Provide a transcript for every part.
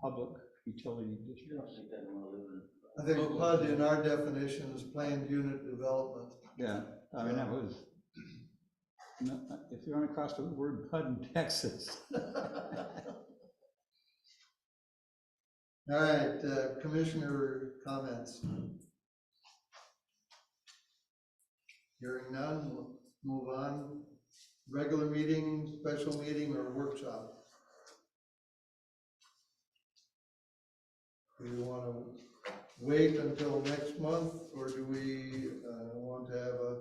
public utility districts. I think PUD in our definition is planned unit development. Yeah, I mean, that was, no, Uh, if you're on across the word PUD in Texas, All right, uh, commissioner comments. Hearing none, we'll move on. Regular meeting, special meeting, or workshop? Do you want to wait until next month, or do we uh, want to have a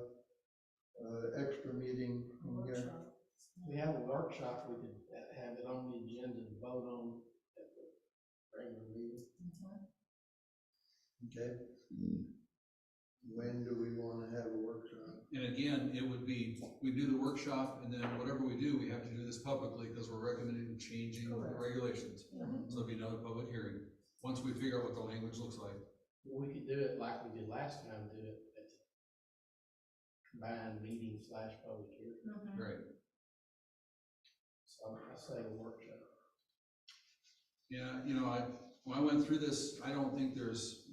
uh, extra meeting in here? We have a workshop, we could ha- have it on the agenda to vote on at the regular meeting. Okay, Hmm. when do we want to have a workshop? And again, it would be, we do the workshop, and then whatever we do, we have to do this publicly, because we're recommending changing the Correct. regulations. So it'll be another public hearing, once we figure out what the language looks like. We could do it like we did last time, do it at the combined meeting slash public hearing. Mm-hmm. Right. So I say a workshop. Yeah, you know, I, when I went through this, I don't think there's,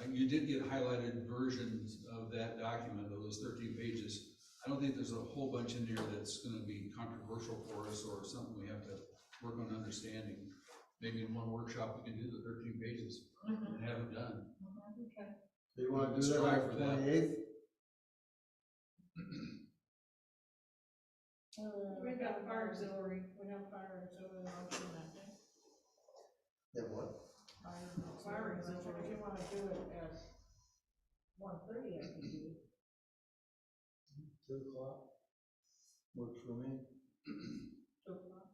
I- you did get highlighted versions of that document, of those thirteen pages. I don't think there's a whole bunch in there that's gonna be controversial for us, or something we have to work on understanding. Maybe in one workshop, we can do the thirteen pages and have it done. Do you wanna do that Strive on for the that. twenty-eighth? We've got fire auxiliary, we have fire auxiliary option, I think. Yeah, what? Fire auxiliary, if you wanna do it at one thirty, I can do. Two o'clock? Works for me. two o'clock.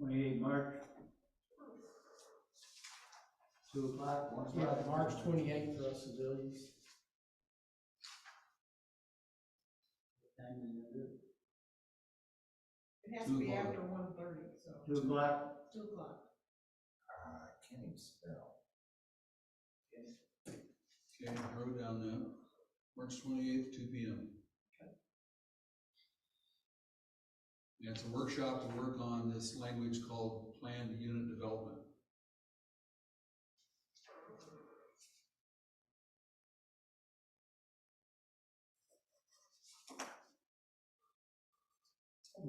twenty-eight March, Two o'clock, one Yeah, March twenty-eighth for us civilians. It has to Two be o'clock. after one thirty, so, Two o'clock. two o'clock. I can't even spell. Okay, I wrote down that, March twenty-eighth, two P M. And it's a workshop to work on this language called planned unit development.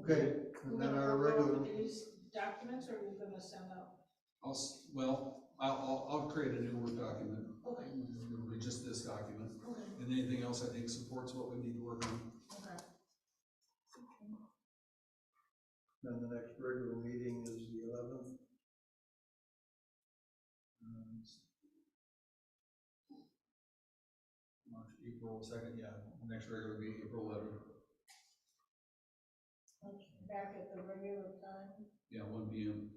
Okay, and then our regular, These documents, or are you gonna send out? I'll, s- well, I'll, I'll, I'll create a new work document, Okay, it'll be just this document, okay, and anything else I think supports what we need to work on. okay. then the next regular meeting is the eleventh. Uh, March, April second, yeah, next regular will be April eleventh, Back at the regular time, yeah, one P M.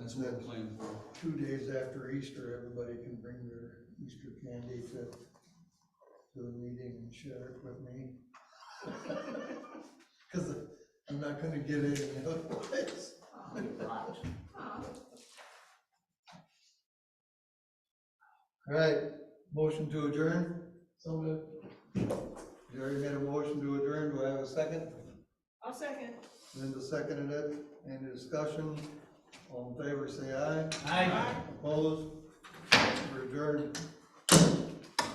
That's what we're planning for. Two days after Easter, everybody can bring their Easter candy to, to the meeting and share it with me. Cause I'm not gonna get any otherwise. All right, motion to adjourn? So moved. Jerry made a motion to adjourn, do I have a second? I'll second. Linda seconded it, any discussion? All in favor, say aye. Opposed? We're adjourned.